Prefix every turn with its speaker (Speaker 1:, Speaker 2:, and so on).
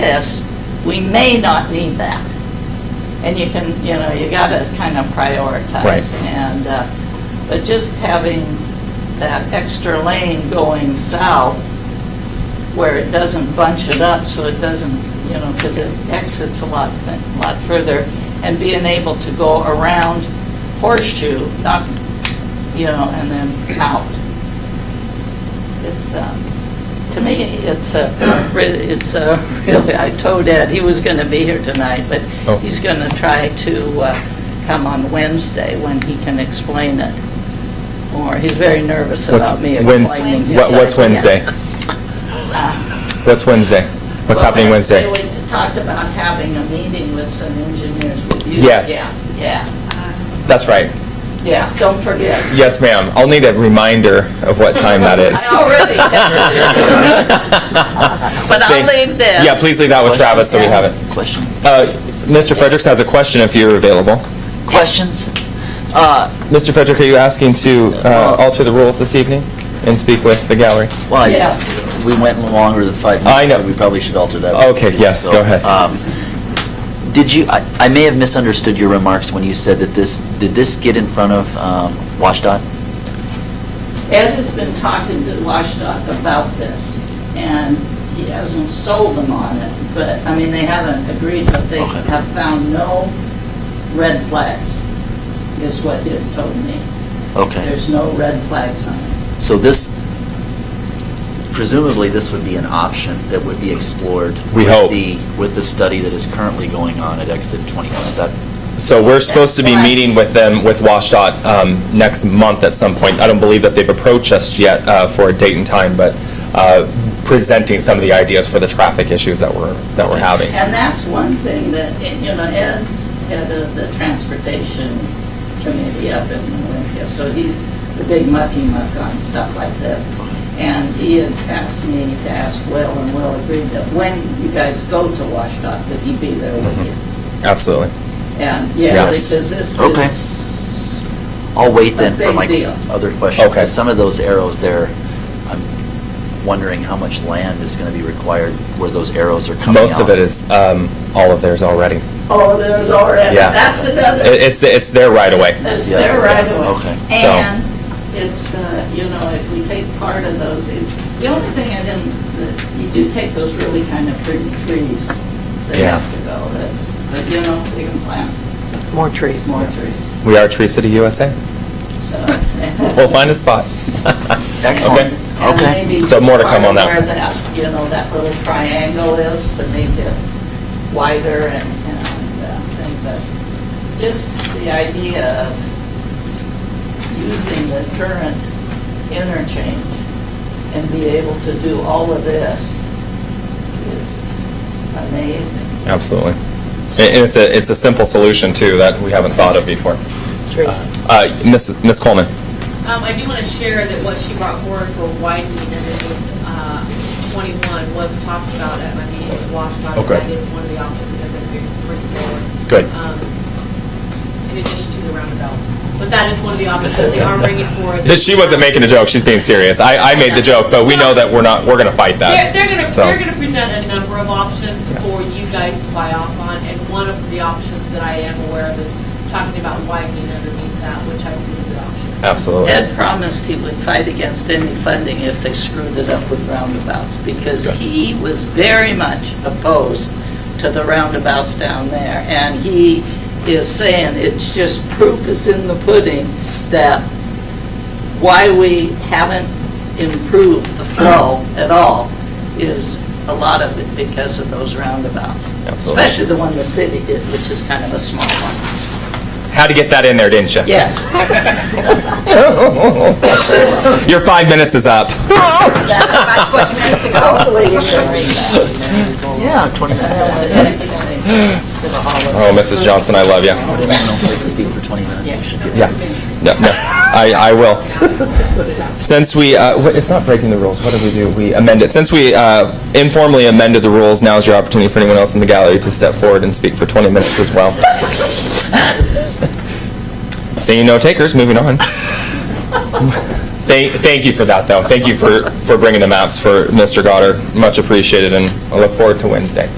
Speaker 1: this, we may not need that. And you can, you know, you gotta kind of
Speaker 2: Right.
Speaker 1: prioritize. And, uh, but just having that extra lane going south where it doesn't bunch it up, so it doesn't, you know, because it exits a lot, thi- a lot further, and being able to go around horseshoe, not, you know, and then out. It's, um, to me, it's a, re- it's a, really, I told Ed, he was going to be here tonight, but
Speaker 2: Oh.
Speaker 1: he's going to try to uh, come on Wednesday when he can explain it more. He's very nervous
Speaker 2: What's
Speaker 1: about me
Speaker 2: Wednes-
Speaker 1: explaining. his
Speaker 2: what- What's
Speaker 1: idea.
Speaker 2: Wednesday? What's Wednesday? What's
Speaker 1: Well,
Speaker 2: happening Wednesday?
Speaker 1: We talked about having a meeting with some engineers with you.
Speaker 2: Yes.
Speaker 1: Yeah,
Speaker 2: That's right.
Speaker 1: yeah, yeah, don't forget.
Speaker 2: Yes, ma'am. I'll need a reminder of what time that is.
Speaker 1: I already texted you. But I'll
Speaker 2: Thank-
Speaker 1: leave this.
Speaker 2: Yeah, please leave that with Oh, Travis so we have it.
Speaker 3: Question,
Speaker 2: Uh, Mr. Fredericks has a question if you're available.
Speaker 3: questions? Uh,
Speaker 2: Mr. Frederick, are you asking to
Speaker 1: Oh.
Speaker 2: uh, alter the rules this evening and speak with the gallery?
Speaker 3: Well,
Speaker 1: Yes.
Speaker 3: I- we went longer than five
Speaker 2: I
Speaker 3: minutes, so
Speaker 2: know.
Speaker 3: we probably should alter that.
Speaker 2: Okay, yes,
Speaker 3: So,
Speaker 2: go ahead.
Speaker 3: um, Did you, I I may have misunderstood your remarks when you said that this, did this get in front of um, WashDOT?
Speaker 1: Ed has been talking to WashDOT about this, and he hasn't sold them on it, but, I mean, they haven't agreed, but they
Speaker 3: Okay.
Speaker 1: have found no red flags, is what he has told me.
Speaker 3: Okay,
Speaker 1: There's no red flags on it.
Speaker 3: so this, presumably, this would be an option that would be explored.
Speaker 2: We
Speaker 3: with
Speaker 2: hope.
Speaker 3: the- With the study that is currently going on at Exit 21, is that?
Speaker 2: So we're supposed to be
Speaker 1: That's why-
Speaker 2: meeting with them, with WashDOT, um, next month at some point. I don't believe that they've approached us yet uh, for a date and time, but uh, presenting some of the ideas for the traffic issues that we're, that we're having.
Speaker 1: And that's one thing that, you know, Ed's head of the transportation committee up in Olympia, so he's the big mucky muck on stuff like this. And he had asked me to ask Will, and Will agreed that when you guys go to WashDOT, that he be there with you.
Speaker 2: Absolutely.
Speaker 1: And, yeah,
Speaker 2: Mm-hmm. Yes.
Speaker 1: because this
Speaker 3: Okay.
Speaker 1: is,
Speaker 3: I'll wait then
Speaker 1: A
Speaker 3: for
Speaker 1: big
Speaker 3: my
Speaker 1: deal.
Speaker 3: other questions,
Speaker 2: Okay.
Speaker 3: because some of those arrows there, I'm wondering how much land is going to be required where those arrows are coming out.
Speaker 2: Most of it is, um, all of theirs already.
Speaker 1: oh, there's already,
Speaker 2: Yeah.
Speaker 1: that's another.
Speaker 2: It- It's, it's their right away.
Speaker 1: That's
Speaker 3: Yeah.
Speaker 1: their right away.
Speaker 3: Okay.
Speaker 2: So-
Speaker 1: And it's the, you know, if we take part of those, it- the only thing I didn't, the- you do take those really kind of pretty trees that
Speaker 2: Yeah.
Speaker 1: have to go, that's, but you know, we can plant
Speaker 4: More trees.
Speaker 1: more trees,
Speaker 2: We are Tree City USA.
Speaker 1: so.
Speaker 2: We'll find a spot.
Speaker 3: Excellent.
Speaker 2: Okay.
Speaker 1: And
Speaker 3: Okay.
Speaker 1: maybe
Speaker 2: So more to come on that.
Speaker 1: Where that, you know, that little triangle is to make it wider and, and uh, thing, but just the idea of using the current interchange and be able to do all of this is amazing.
Speaker 2: Absolutely. And and it's a, it's a simple solution too that we haven't thought of before. Uh, Ms. Ms. Coleman?
Speaker 5: Um, I do want to share that what she brought forward for widening underneath, uh, twenty-one was talked about at my meeting with WashDOT.
Speaker 2: Okay.
Speaker 5: That is one of the options that they're going to bring forward.
Speaker 2: Good.
Speaker 5: um, In addition to the roundabouts. But that is one of the options that they are bringing forward.
Speaker 2: She wasn't making a joke, she's being serious. I, I made the joke, but we know that we're not, we're going to fight
Speaker 5: They're,
Speaker 2: that.
Speaker 5: they're gonna,
Speaker 2: So-
Speaker 5: they're gonna present a number of options for you guys to buy off on, and one of the options that I am aware of is talking about widening underneath that, which I think is a good option.
Speaker 2: Absolutely.
Speaker 1: Ed promised he would fight against any funding if they screwed it up with roundabouts, because
Speaker 2: Good.
Speaker 1: he was very much opposed to the roundabouts down there, and he is saying it's just proof is in the pudding that why we haven't improved the flow at all is a lot of it because of those roundabouts.
Speaker 2: Absolutely.
Speaker 1: Especially the one the city did, which is kind of a small one.
Speaker 2: Had to get that in there, didn't you?
Speaker 1: Yes.
Speaker 2: Your five minutes is up.
Speaker 1: That's what you meant to go. Hopefully you should read that.
Speaker 3: Yeah, 20 minutes. I
Speaker 2: Oh, Mrs. Johnson, I love you.
Speaker 3: don't know if I can speak for 20 minutes. I should be-
Speaker 2: Yeah. No, no, I, I will. Since we, uh, wh- it's not breaking the rules, what did we do? We amend it. Since we uh, informally amended the rules, now is your opportunity for anyone else in the gallery to step forward and speak for 20 minutes as well. Seeing no takers, moving on. Thank, thank you for that, though. Thank you for, for bringing the maps for Mr. Goddard. Much appreciated, and I look forward to Wednesday.